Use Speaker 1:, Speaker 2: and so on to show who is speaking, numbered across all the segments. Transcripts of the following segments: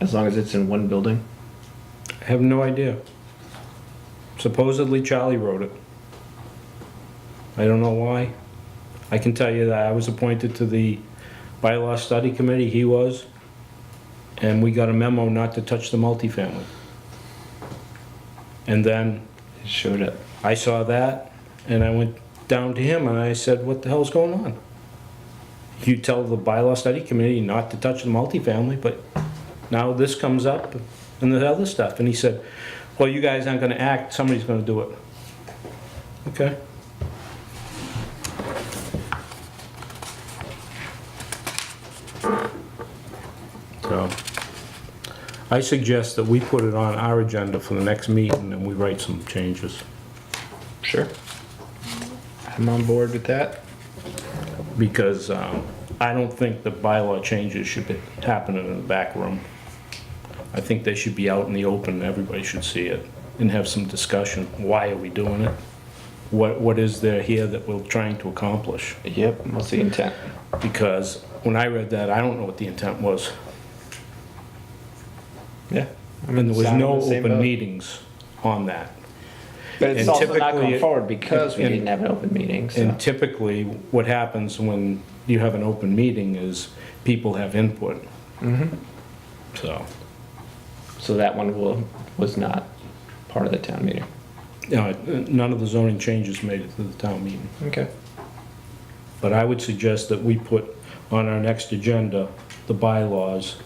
Speaker 1: As long as it's in one building?
Speaker 2: I have no idea. Supposedly Charlie wrote it. I don't know why. I can tell you that I was appointed to the bylaw study committee, he was, and we got a memo not to touch the multifamily. And then
Speaker 1: It showed up.
Speaker 2: I saw that, and I went down to him and I said, what the hell's going on? You tell the bylaw study committee not to touch the multifamily, but now this comes up and the other stuff, and he said, well, you guys aren't gonna act, somebody's gonna do it. Okay? So, I suggest that we put it on our agenda for the next meeting and we write some changes.
Speaker 1: Sure. I'm on board with that.
Speaker 2: because um, I don't think the bylaw changes should be happening in the back room. I think they should be out in the open, everybody should see it, and have some discussion. Why are we doing it? What, what is there here that we're trying to accomplish?
Speaker 1: Yep, what's the intent?
Speaker 2: Because when I read that, I don't know what the intent was.
Speaker 1: Yeah. I mean,
Speaker 2: And there was
Speaker 1: sound
Speaker 2: no
Speaker 1: the same
Speaker 2: open
Speaker 1: boat.
Speaker 2: meetings on that.
Speaker 1: But it's
Speaker 2: and
Speaker 1: also not
Speaker 2: typically-
Speaker 1: going forward because we
Speaker 2: and-
Speaker 1: didn't have an open meeting, so.
Speaker 2: And typically, what happens when you have an open meeting is people have input.
Speaker 1: Mm-hmm.
Speaker 2: So,
Speaker 1: So that one will, was not part of the town meeting.
Speaker 2: you know, none of the zoning changes made it to the town meeting.
Speaker 1: Okay.
Speaker 2: But I would suggest that we put on our next agenda the bylaws,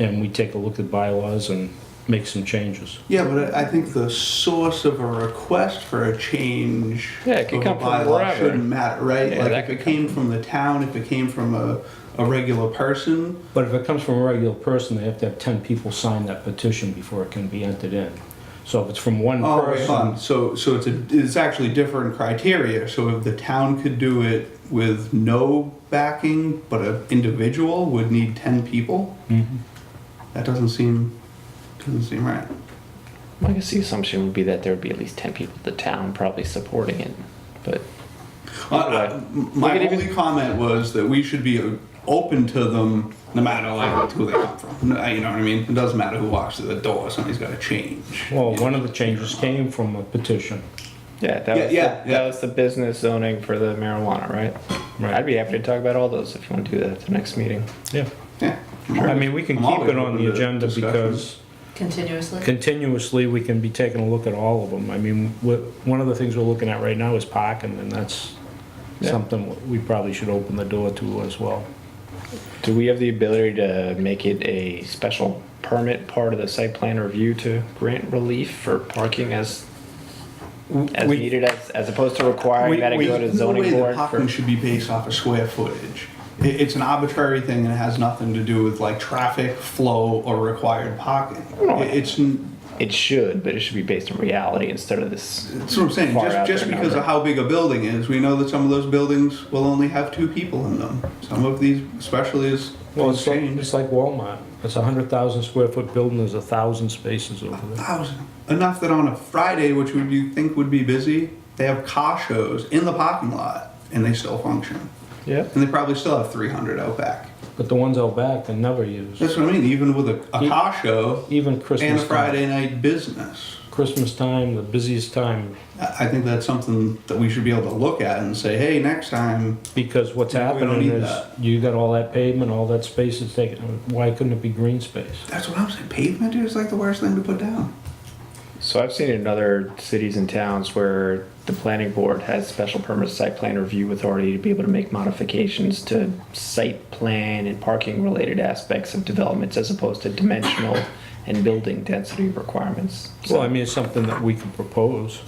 Speaker 2: and we take a look at bylaws and make some changes.
Speaker 3: Yeah, but I I think the source of a request for a change
Speaker 1: Yeah, it could
Speaker 3: of
Speaker 1: come
Speaker 3: a
Speaker 1: from
Speaker 3: bylaw
Speaker 1: wherever.
Speaker 3: shouldn't matter, right?
Speaker 1: Yeah, that
Speaker 3: like if
Speaker 1: could
Speaker 3: it came from the town, if it came from a, a regular person,
Speaker 2: But if it comes from a regular person, they have to have ten people sign that petition before it can be entered in. So if it's from one
Speaker 3: oh, right,
Speaker 2: person,
Speaker 3: fine. so so it's a, it's actually different criteria. So if the town could do it with no backing, but an individual would need ten people,
Speaker 2: Mhm.
Speaker 3: that doesn't seem doesn't seem right.
Speaker 1: Well, I guess the assumption would be that there would be at least ten people at the town probably supporting it, but.
Speaker 3: Uh,
Speaker 1: Right.
Speaker 3: uh, m- my
Speaker 1: Look at
Speaker 3: only
Speaker 1: even-
Speaker 3: comment was that we should be uh, open to them no matter like who they come from. No, You know what I mean? It doesn't matter who walks through the door. Somebody's got to change.
Speaker 2: well,
Speaker 3: You
Speaker 2: one
Speaker 3: know?
Speaker 2: of the changes came from a petition.
Speaker 1: Yeah, that
Speaker 3: Yeah,
Speaker 1: was,
Speaker 3: yeah,
Speaker 1: the, that
Speaker 3: yeah.
Speaker 1: was the business zoning for the marijuana, right?
Speaker 2: Right.
Speaker 1: I'd be happy to talk about all those if you want to do that at the next meeting.
Speaker 2: Yeah.
Speaker 3: yeah.
Speaker 2: I mean, we can
Speaker 3: I'm
Speaker 2: keep
Speaker 3: always
Speaker 2: it on
Speaker 3: open
Speaker 2: the
Speaker 3: to
Speaker 2: agenda
Speaker 3: discussion.
Speaker 2: because
Speaker 4: Continuously?
Speaker 2: continuously, we can be taking a look at all of them. I mean, wh- one of the things we're looking at right now is parking, and that's
Speaker 1: Yeah.
Speaker 2: something we probably should open the door to as well.
Speaker 1: Do we have the ability to make it a special permit part of the site plan review to grant relief for parking as as
Speaker 2: We-
Speaker 1: needed, as, as opposed to requiring
Speaker 2: We-
Speaker 1: that it
Speaker 2: we-
Speaker 1: go to
Speaker 3: There's no way
Speaker 1: zoning
Speaker 3: that
Speaker 1: board?
Speaker 3: parking
Speaker 1: For,
Speaker 3: should be based off of square footage. It, it's an arbitrary thing and it has nothing to do with like traffic flow or required parking.
Speaker 1: No.
Speaker 3: It, it's n-
Speaker 1: it should, but it should be based on reality instead of this.
Speaker 3: That's what I'm saying.
Speaker 1: Far out
Speaker 3: Just, just
Speaker 1: there
Speaker 3: because
Speaker 1: number.
Speaker 3: of how big a building is, we know that some of those buildings will only have two people in them. Some of these, especially as
Speaker 2: Well,
Speaker 3: things
Speaker 2: it's like,
Speaker 3: change,
Speaker 2: it's like Walmart. It's a hundred thousand square foot building, there's a thousand spaces over there.
Speaker 3: thousand. Enough that on a Friday, which would you think would be busy, they have car shows in the parking lot and they still function.
Speaker 1: Yeah.
Speaker 3: And they probably still have 300 out back.
Speaker 2: But the ones out back are never used,
Speaker 3: That's what I mean. Even with a, a car show
Speaker 2: even
Speaker 3: and
Speaker 2: Christmas
Speaker 3: a
Speaker 2: time.
Speaker 3: Friday night business,
Speaker 2: Christmas time, the busiest time,
Speaker 3: I I think that's something that we should be able to look at and say, hey, next time,
Speaker 2: because what's
Speaker 3: We don't
Speaker 2: happening
Speaker 3: need
Speaker 2: is
Speaker 3: that.
Speaker 2: you got all that pavement, all that space is taken, why couldn't it be green space?
Speaker 3: that's what I'm saying. Pavement is like the worst thing to put down.
Speaker 1: So I've seen in other cities and towns where the planning board has special permit site plan review authority to be able to make modifications to site plan and parking related aspects of developments as opposed to dimensional and building density requirements. So
Speaker 2: Well, I mean, it's something that we can propose,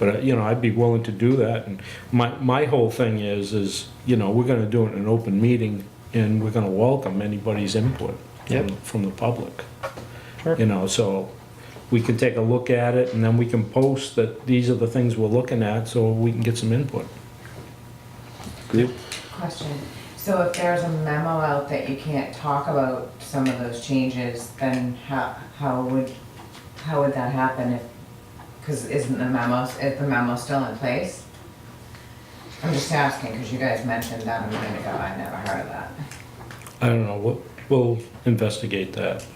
Speaker 2: but, uh, you know, I'd be willing to do that, and my, my whole thing is, is, you know, we're gonna do it in an open meeting, and we're gonna welcome anybody's input from,
Speaker 1: Yep.
Speaker 2: from the public.
Speaker 1: Sure.
Speaker 2: You know, so, we can take a look at it, and then we can post that these are the things we're looking at, so we can get some input.
Speaker 5: Question. So if there's a memo out that you can't talk about some of those changes, then how, how would, how would that happen if, because isn't the memo, is the memo still in place? I'm just asking, because you guys mentioned that a minute ago, I never heard of that.
Speaker 2: I don't know, we'll, we'll investigate that.